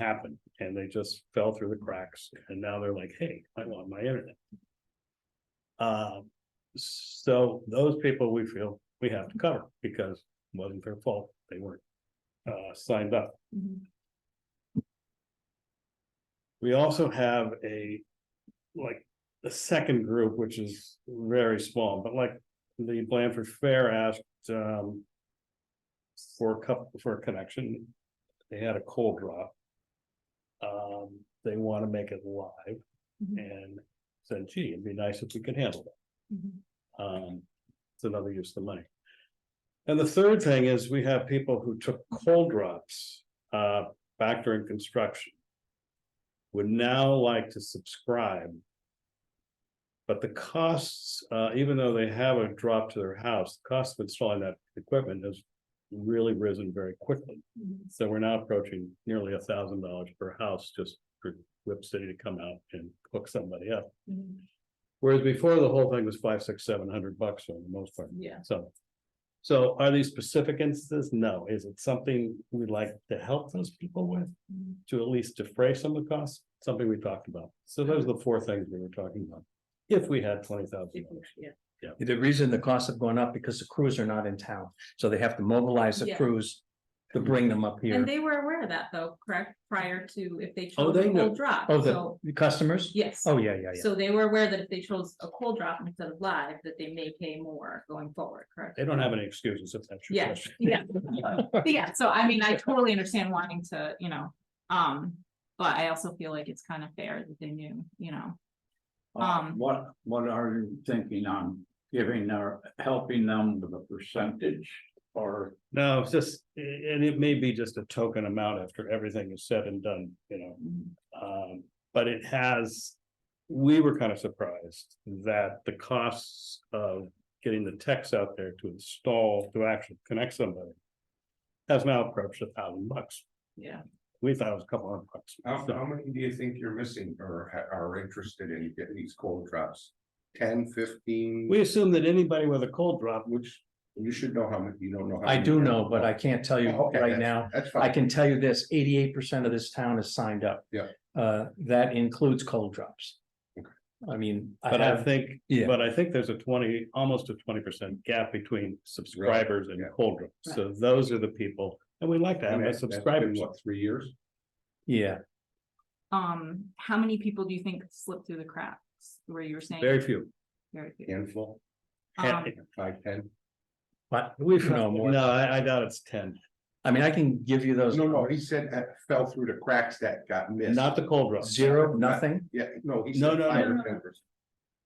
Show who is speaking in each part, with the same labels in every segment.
Speaker 1: happened and they just fell through the cracks and now they're like, hey, I want my internet. Um, so those people we feel we have to cover because it wasn't their fault. They weren't uh, signed up. We also have a, like, the second group, which is very small, but like the Blanford Fair asked, um. For a cup, for a connection, they had a cold drop. Um, they wanna make it live and said, gee, it'd be nice if we could handle that. Um, it's another use of money. And the third thing is we have people who took cold drops, uh, back during construction. Would now like to subscribe. But the costs, uh, even though they have a drop to their house, the cost of installing that equipment has really risen very quickly. So we're now approaching nearly a thousand dollars per house just for Whip City to come out and hook somebody up. Whereas before, the whole thing was five, six, seven hundred bucks for the most part.
Speaker 2: Yeah.
Speaker 1: So. So are these specific instances? No. Is it something we'd like to help those people with to at least defray some of the costs? Something we talked about. So those are the four things we were talking about. If we had twenty thousand.
Speaker 3: The reason the costs have gone up because the crews are not in town, so they have to mobilize the
Speaker 2: Yeah.
Speaker 3: crews to bring them up
Speaker 2: And
Speaker 3: here.
Speaker 2: they were aware of that though, correct, prior to if they
Speaker 1: Oh,
Speaker 2: chose
Speaker 1: they
Speaker 2: a
Speaker 1: knew.
Speaker 2: cold drop,
Speaker 3: Oh, the,
Speaker 2: so,
Speaker 3: the customers?
Speaker 2: yes.
Speaker 3: Oh, yeah, yeah, yeah.
Speaker 2: So they were aware that if they chose a cold drop instead of live, that they may pay more going forward, correct?
Speaker 1: They don't have any excuses if that's your
Speaker 2: Yeah,
Speaker 1: question.
Speaker 2: yeah. But Yeah, so I mean, I totally understand wanting to, you know, um, but I also feel like it's kind of fair that they knew, you know.
Speaker 4: Uh,
Speaker 1: Oh,
Speaker 2: Um,
Speaker 4: what, what are you thinking on giving or helping them with a percentage or?
Speaker 1: No, it's just, and it may be just a token amount after everything is said and done, you know. Um, but it has, we were kind of surprised that the costs of getting the techs out there to install, to actually connect somebody. Has now approached a thousand bucks.
Speaker 2: yeah,
Speaker 1: We thought it was a couple hundred bucks.
Speaker 5: How, how many do you think you're missing or ha- are interested in getting these cold drops? Ten, fifteen?
Speaker 1: We assumed that anybody with a cold drop,
Speaker 5: Which, you should know how many, you don't know. how
Speaker 3: I
Speaker 5: many
Speaker 3: do
Speaker 5: are.
Speaker 3: know, but I can't tell you
Speaker 5: Oh, okay,
Speaker 3: right
Speaker 5: that's-
Speaker 3: now.
Speaker 5: That's
Speaker 3: I
Speaker 5: fine.
Speaker 3: can tell you this, eighty-eight percent of this town is signed up.
Speaker 5: Yeah.
Speaker 3: Uh, that includes cold drops.
Speaker 5: Okay.
Speaker 3: I mean, I
Speaker 1: but I
Speaker 3: have,
Speaker 1: think,
Speaker 3: yeah.
Speaker 1: but I think there's a twenty, almost a twenty percent gap between subscribers and
Speaker 5: yeah.
Speaker 1: cold drops. So those are the people, and we like to have
Speaker 5: And
Speaker 1: a
Speaker 5: that- that's been,
Speaker 1: subscriber.
Speaker 5: What, three years?
Speaker 3: yeah,
Speaker 2: um, how many people do you think slipped through the cracks where you were saying?
Speaker 1: Very few.
Speaker 2: Very few.
Speaker 5: Handful,
Speaker 2: Um,
Speaker 5: five, ten?
Speaker 3: but we should know more.
Speaker 1: No, I, I doubt it's ten,
Speaker 3: I mean, I can give you those.
Speaker 5: No, no, he said that fell through the cracks that got missed.
Speaker 1: not the cold drops,
Speaker 3: Zero, nothing?
Speaker 5: Yeah, no, he
Speaker 1: No,
Speaker 5: said
Speaker 1: no,
Speaker 5: five
Speaker 2: no,
Speaker 5: or
Speaker 2: no.
Speaker 5: 10%.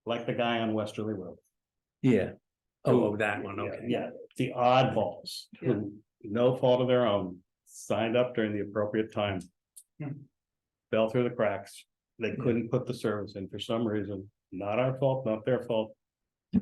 Speaker 1: like the guy on Westerly Road.
Speaker 3: Yeah. Oh, oh, that one,
Speaker 1: Yeah,
Speaker 3: okay.
Speaker 1: Yeah, the oddballs, who, no fault of their own, signed up during the appropriate time. Fell through the cracks, they couldn't put the service in for some reason, not our fault, not their fault,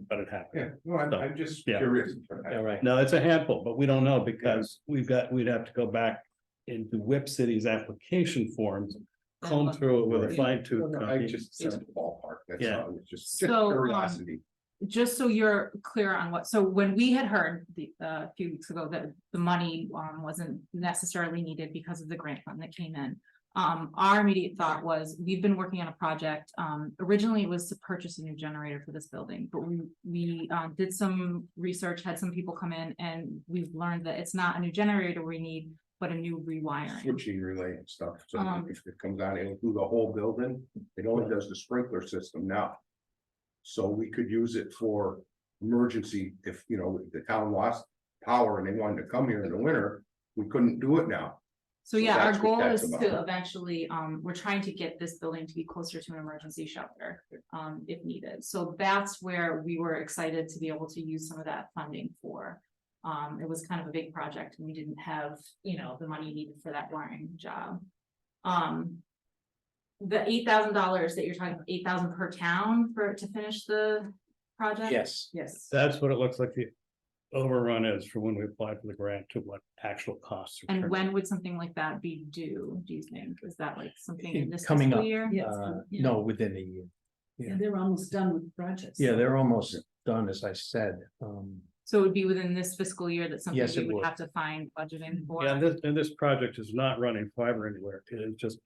Speaker 1: but it happened.
Speaker 5: Yeah, no, I'm,
Speaker 1: So,
Speaker 5: I'm just
Speaker 1: yeah.
Speaker 5: curious.
Speaker 3: All right.
Speaker 1: No, it's a handful, but we don't know because we've got, we'd have to go back into Whip City's application forms,
Speaker 2: Uh-huh.
Speaker 1: comb through it with a
Speaker 5: Right.
Speaker 1: fine
Speaker 5: No,
Speaker 1: tooth.
Speaker 5: no, I
Speaker 1: comb.
Speaker 5: just said ballpark, that's
Speaker 1: Yeah.
Speaker 5: all, it's just just
Speaker 2: So, um,
Speaker 5: curiosity.
Speaker 2: just so you're clear on what, so when we had heard the, uh, a few weeks ago that the money, um, wasn't necessarily needed because of the grant fund that came in. Um, our immediate thought was, we've been working on a project, um, originally it was to purchase a new generator for this building, but we, we, um, did some research, had some people come in, and we've learned that it's not a new generator we need, but a new rewiring.
Speaker 5: switching related stuff, so
Speaker 2: Um,
Speaker 5: if it comes out, it'll do the whole building, it only does the sprinkler system now. So we could use it for emergency, if, you know, the town lost power and they wanted to come here in the winter, we couldn't do it now.
Speaker 2: So yeah, our
Speaker 5: that's what
Speaker 2: goal
Speaker 5: that's
Speaker 2: is to
Speaker 5: about.
Speaker 2: eventually, um, we're trying to get this building to be closer to an emergency shelter, um, if needed. So that's where we were excited to be able to use some of that funding for. Um, it was kind of a big project and we didn't have, you know, the money needed for that wiring job. Um. The eight thousand dollars that you're talking, eight thousand per town for, to finish the project?
Speaker 3: Yes.
Speaker 2: Yes.
Speaker 1: That's what it looks like the overrun is for when we applied for the grant to what actual costs. are
Speaker 2: And
Speaker 1: turned
Speaker 2: when would something like that be due, do you think? Is that like something in this
Speaker 3: Coming
Speaker 2: fiscal
Speaker 3: up.
Speaker 2: year?
Speaker 6: Yes,
Speaker 3: Uh,
Speaker 6: yeah.
Speaker 3: no, within a year.
Speaker 6: Yeah, they're almost done with the project.
Speaker 3: Yeah, they're almost done, as I said. Um,
Speaker 2: So it would be within this fiscal year that something
Speaker 3: Yes, it
Speaker 2: we would
Speaker 3: would.
Speaker 2: have to find budgeting for.
Speaker 1: Yeah, and this, and this project is not running fiber anywhere. It is just